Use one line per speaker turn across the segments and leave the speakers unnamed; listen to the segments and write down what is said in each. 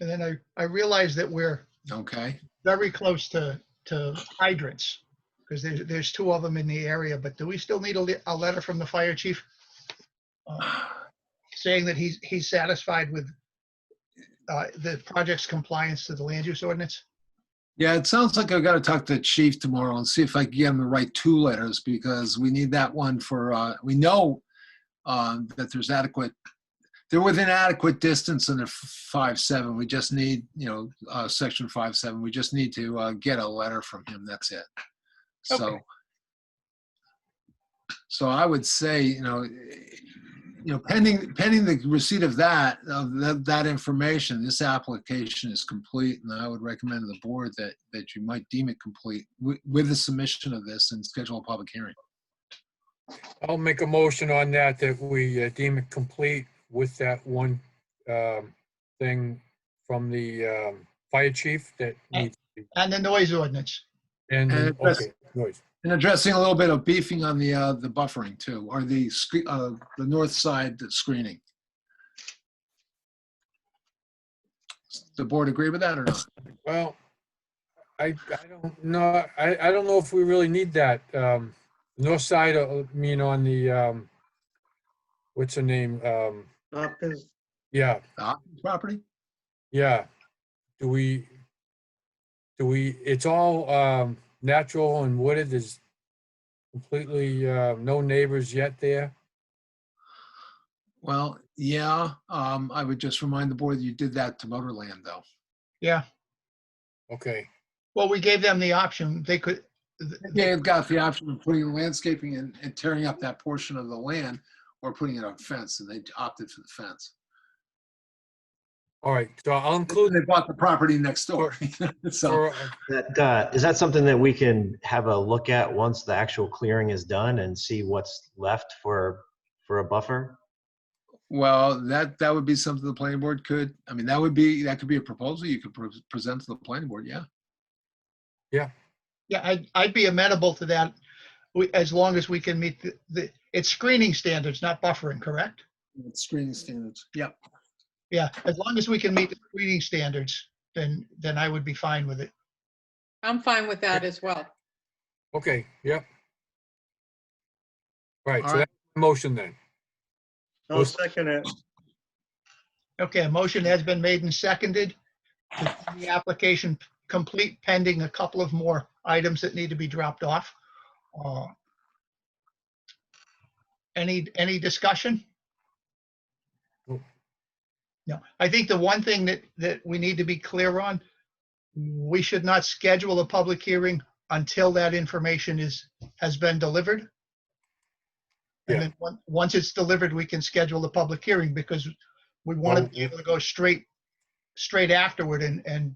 And then I, I realized that we're
Okay,
very close to, to hydrants, because there's, there's two of them in the area, but do we still need a, le- a letter from the fire chief? uh, Saying that he's, he's satisfied with uh, the project's compliance to the land use ordinance?
yeah, it sounds like I've got to talk to the chief tomorrow and see if I can get him to write two letters, because we need that one for, uh, we know um, that there's adequate, they're within adequate distance under five, seven, we just need, you know, uh, section five, seven, we just need to uh, get a letter from him, that's it. So,
Okay.
so I would say, you know, you know, pending, pending the receipt of that, of that, that information, this application is complete, and I would recommend to the board that, that you might deem it complete with, with the submission of this and schedule a public hearing.
I'll make a motion on that, that we uh, deem it complete with that one um, thing from the um, fire chief that needs,
And the noise ordinance?
and,
Uh, that's-
okay, noise.
And addressing a little bit of beefing on the, uh, the buffering too, or the, scre- uh, the north side screening. Does The board agree with that or not?
Well, I, I don't know, I, I don't know if we really need that. um, North side, uh, I mean, on the, um, what's her name? Um,
Hopkins,
Yeah,
The Hopkins Property?
yeah. Do we, do we, it's all um, natural and wooded, there's completely uh, no neighbors yet there.
Well, yeah, um, I would just remind the board that you did that to Motorland though.
Yeah,
Okay.
well, we gave them the option, they could, th-
they have got the option of putting landscaping and, and tearing up that portion of the land or putting it on fence, and they opted for the fence.
All right, so I'll
Including
include,
they bought the property next door. So,
for-
that, uh, is that something that we can have a look at once the actual clearing is done and see what's left for, for a buffer?
well, that, that would be something the planning board could, I mean, that would be, that could be a proposal you could pre- present to the planning board, yeah.
yeah, I'd, I'd be amenable to that, we- as long as we can meet the- the, it's screening standards, not buffering, correct?
Screening standards, yep.
Yeah, as long as we can meet the screening standards, then, then I would be fine with it.
I'm fine with that as well.
okay, yep. Right,
All
so
right.
that's the motion then.
I'll second it.
Okay, a motion has been made and seconded. to deem The application complete pending a couple of more items that need to be dropped off. Uh, Any, any discussion?
Nope.
No, I think the one thing that, that we need to be clear on, we should not schedule a public hearing until that information is, has been delivered.
Yeah.
And then, on- once it's delivered, we can schedule the public hearing because we want to
Well,
be able to go straight, straight afterward and, and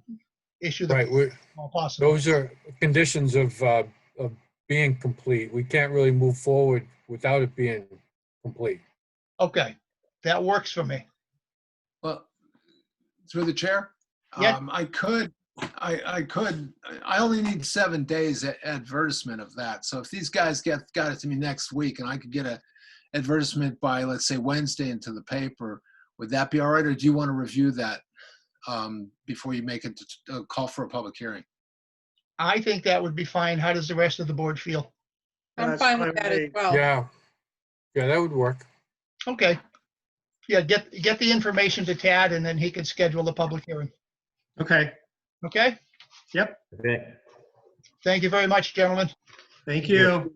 issue the.
Right, we're,
all possible.
those are conditions of, uh, of being complete. We can't really move forward without it being complete.
Okay, that works for me.
Well, through the chair?
Yeah.
Um, I could, I, I could, I only need seven days a- advertisement of that. So if these guys get, got it to me next week and I could get a advertisement by, let's say Wednesday into the paper, would that be all right? Or do you want to review that um, before you make a, t- a call for a public hearing?
I think that would be fine. How does the rest of the board feel?
I'm
That's
fine with
fine
that
with
as
me.
well.
Yeah, yeah, that would work.
Okay. Yeah, get, get the information to Tad and then he can schedule the public hearing.
Okay,
Okay?
Okay,
Thank you very much, gentlemen.
thank you.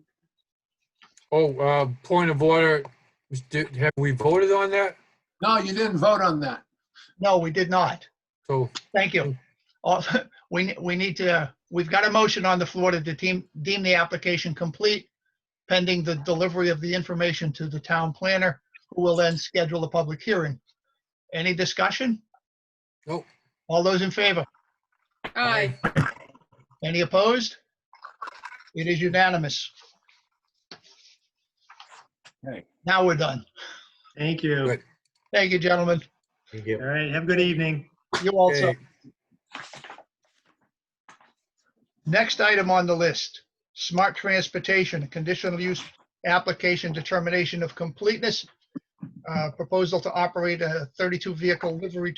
Oh, uh, point of order, was- did- have we voted on that?
No, you didn't vote on that.
No, we did not.
So,
Thank you. Uh, We, ne- we need to, we've got a motion on the floor to deem, deem the application complete pending the delivery of the information to the town planner, who will then schedule a public hearing. Any discussion?
Nope.
All those in favor?
Aye,
Any opposed? It is unanimous.
Okay.
Now we're done.
Thank you.
Good.
Thank you, gentlemen.
thank you.
All right, have a good evening.
You also.
okay,
Next item on the list, smart transportation, conditional use application determination of completeness. uh, Proposal to operate a 32 vehicle livery